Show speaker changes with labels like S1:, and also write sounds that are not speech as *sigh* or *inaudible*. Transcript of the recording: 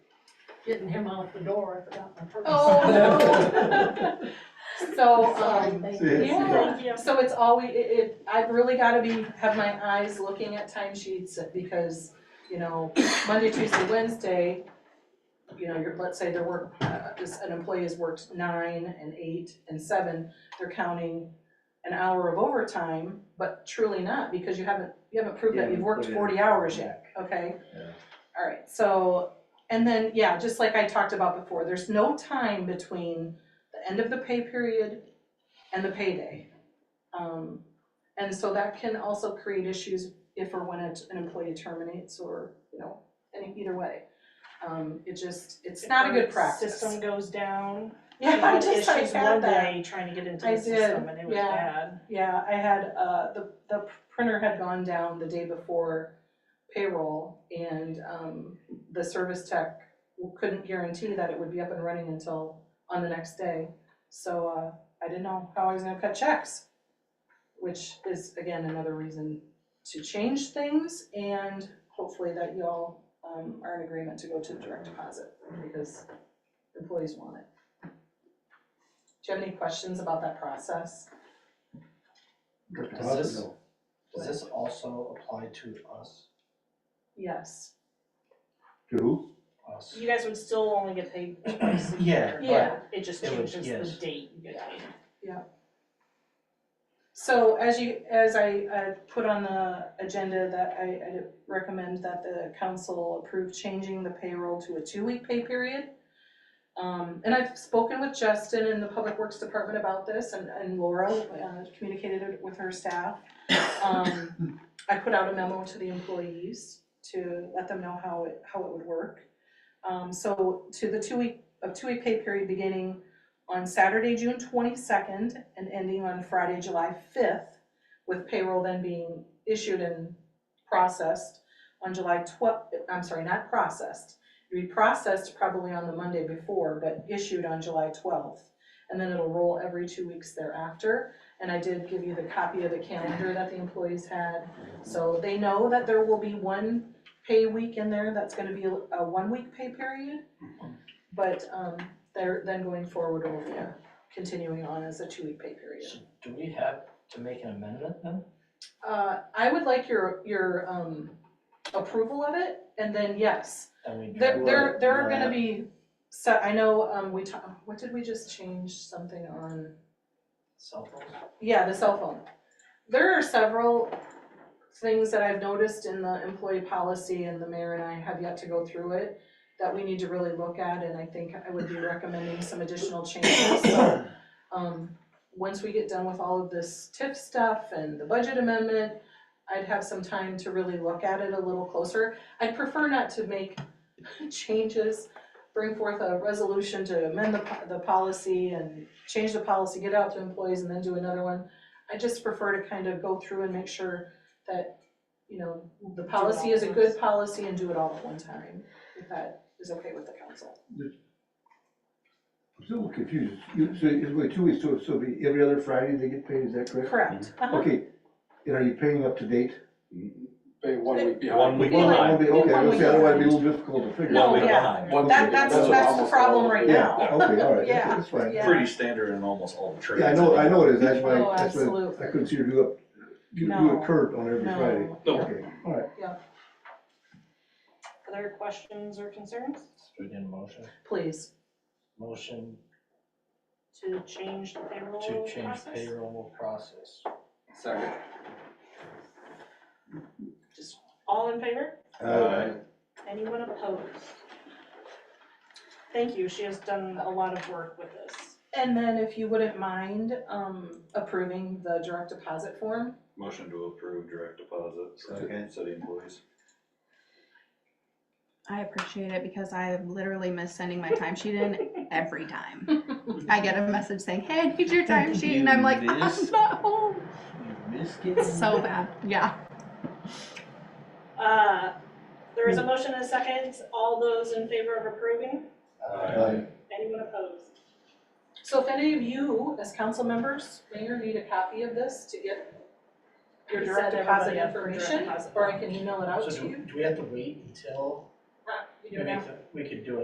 S1: getting him out the door, I forgot my purse.
S2: Oh, no. So,
S1: *laughs* Sorry,
S2: um,
S1: thank
S3: See,
S1: you.
S3: it's-
S2: yeah,
S4: Thank you.
S2: so it's always, it, it, I've really gotta be, have my eyes looking at timesheets because, you know, Monday, Tuesday, Wednesday, you know, you're, let's say there work, uh, this, an employee has worked nine and eight and seven, they're counting an hour of overtime, but truly not, because you haven't, you haven't proved that
S3: Yeah,
S2: you've worked
S3: put it
S2: forty
S3: in.
S2: hours yet, okay?
S3: Yeah.
S2: All right, so, and then, yeah, just like I talked about before, there's no time between the end of the pay period and the payday. Um, and so that can also create issues if or when it- an employee terminates or, you know, any, either way. Um, it just, it's not a good
S4: If our
S2: practice.
S4: System goes down.
S2: Yeah, *laughs*
S4: we
S2: I
S4: had
S2: just, I
S4: issues one
S2: had that.
S4: day trying to get into
S2: I
S4: the
S2: did,
S4: system and it was
S2: yeah.
S4: bad.
S2: Yeah, I had, uh, the, the printer had gone down the day before payroll and, um, the service tech couldn't guarantee that it would be up and running until on the next day. So, uh, I didn't know how I was gonna cut checks, which is again another reason to change things and hopefully that y'all, um, are in agreement to go to direct deposit because employees want it. Do you have any questions about that process?
S5: Does this, does this also apply to us,
S2: Yes,
S3: To who?
S5: us?
S4: You guys would still only get paid twice *clears throat* a year.
S5: Yeah,
S2: yeah.
S4: It just
S5: It would-
S4: changes
S5: yes.
S4: the date you get paid.
S2: So as you, as I, uh put on the agenda that I, I recommend that the council approve changing the payroll to a two-week pay period. Um, and I've spoken with Justin in the Public Works Department about this and, and Laura, uh, communicated it with her staff. Um, I put out a memo to the employees to let them know how it, how it would work. Um, so to the two-week, a two-week pay period beginning on Saturday, June twenty-second, and ending on Friday, July fifth, with payroll then being issued and processed on July twelve, I'm sorry, not processed. It'd be processed probably on the Monday before, but issued on July twelfth. And then it'll roll every two weeks thereafter. And I did give you the copy of the calendar that the employees had. So they know that there will be one pay week in there that's gonna be a, a one-week pay period. But, um, they're then going forward or you know, uh, continuing on as a two-week pay period.
S5: So do we have to make an amendment then?
S2: Uh, I would like your, your, um, approval of it, and then yes,
S5: Then we.
S2: there,
S5: draw
S2: there, there are
S5: that.
S2: gonna be, so, I know, um, we ta- what did we just change something on?
S5: Cell phones?
S2: Yeah, the cell phone. There are several things that I've noticed in the employee policy, and the mayor and I have yet to go through it, that we need to really look at, and I think I would be recommending some additional changes. So, Um, once we get done with all of this TIF stuff and the budget amendment, I'd have some time to really look at it a little closer. I'd prefer not to make *laughs* changes, bring forth a resolution to amend the, po- the policy and change the policy, get out to employees and then do another one. I just prefer to kind of go through and make sure that, you know, the
S4: Do it
S2: policy
S4: all
S2: is a
S4: at
S2: good
S4: once.
S2: policy and do it all at one time, if that is okay with the council.
S3: I'm still confused. You, so it's wait, two weeks, so, so it'll be every other Friday they get paid, is that correct?
S2: Correct. Uh-huh.
S3: Okay, and are you paying up to date?
S6: Pay one week behind.
S7: One week
S2: Well,
S7: behind,
S3: Okay,
S2: one
S3: okay, I was
S2: week
S3: saying, otherwise it'd be a
S2: behind.
S3: little difficult to figure out.
S2: No,
S7: one week
S2: yeah.
S7: behind.
S6: One
S2: That-
S6: week.
S2: that's-
S6: what
S2: that's the
S6: almost
S2: problem
S6: all
S2: right
S6: of it.
S2: now.
S3: Yeah, okay, all right,
S2: Yeah,
S3: that's fine.
S2: yeah.
S7: pretty standard in almost all the trades.
S3: Yeah, I know, I know it is, that's why,
S2: Oh,
S3: that's why
S2: absolutely.
S3: I couldn't see her do a, do do
S2: No.
S3: a current on every Friday.
S2: No.
S7: No.
S3: Okay, all right.
S4: Other questions or concerns
S5: So we need a motion,
S2: Please,
S5: motion
S4: to change the payroll
S5: to change
S4: process?
S5: payroll process.
S6: Second.
S4: All in favor?
S3: Uh,
S4: Anyone opposed? Thank you, she has done a lot of work with this.
S2: and then if you wouldn't mind, um, approving the direct deposit form,
S7: Motion to approve direct deposit for
S3: Second.
S7: city employees.
S8: I appreciate it because I literally miss sending my timesheet in every time. I get a message saying, "Hey, I need your timesheet," and I'm like, *laughs*
S5: You
S8: "I'm
S5: miss-
S8: not home."
S5: Miss
S8: It's so bad. Yeah.
S4: Uh, there
S5: Hmm.
S4: is a motion and a second, all those in favor of approving,
S3: uh,
S4: anyone opposed?
S2: So if any of you, as council members, mayor, need a copy of this to get your
S4: We
S2: direct
S4: sent
S2: deposit
S4: everybody up for direct
S2: information,
S4: deposit.
S2: or I can email it out
S5: So
S2: to
S5: do,
S2: you.
S5: do we have to wait until
S2: Uh, you
S5: we
S2: know,
S5: make, the- we could do it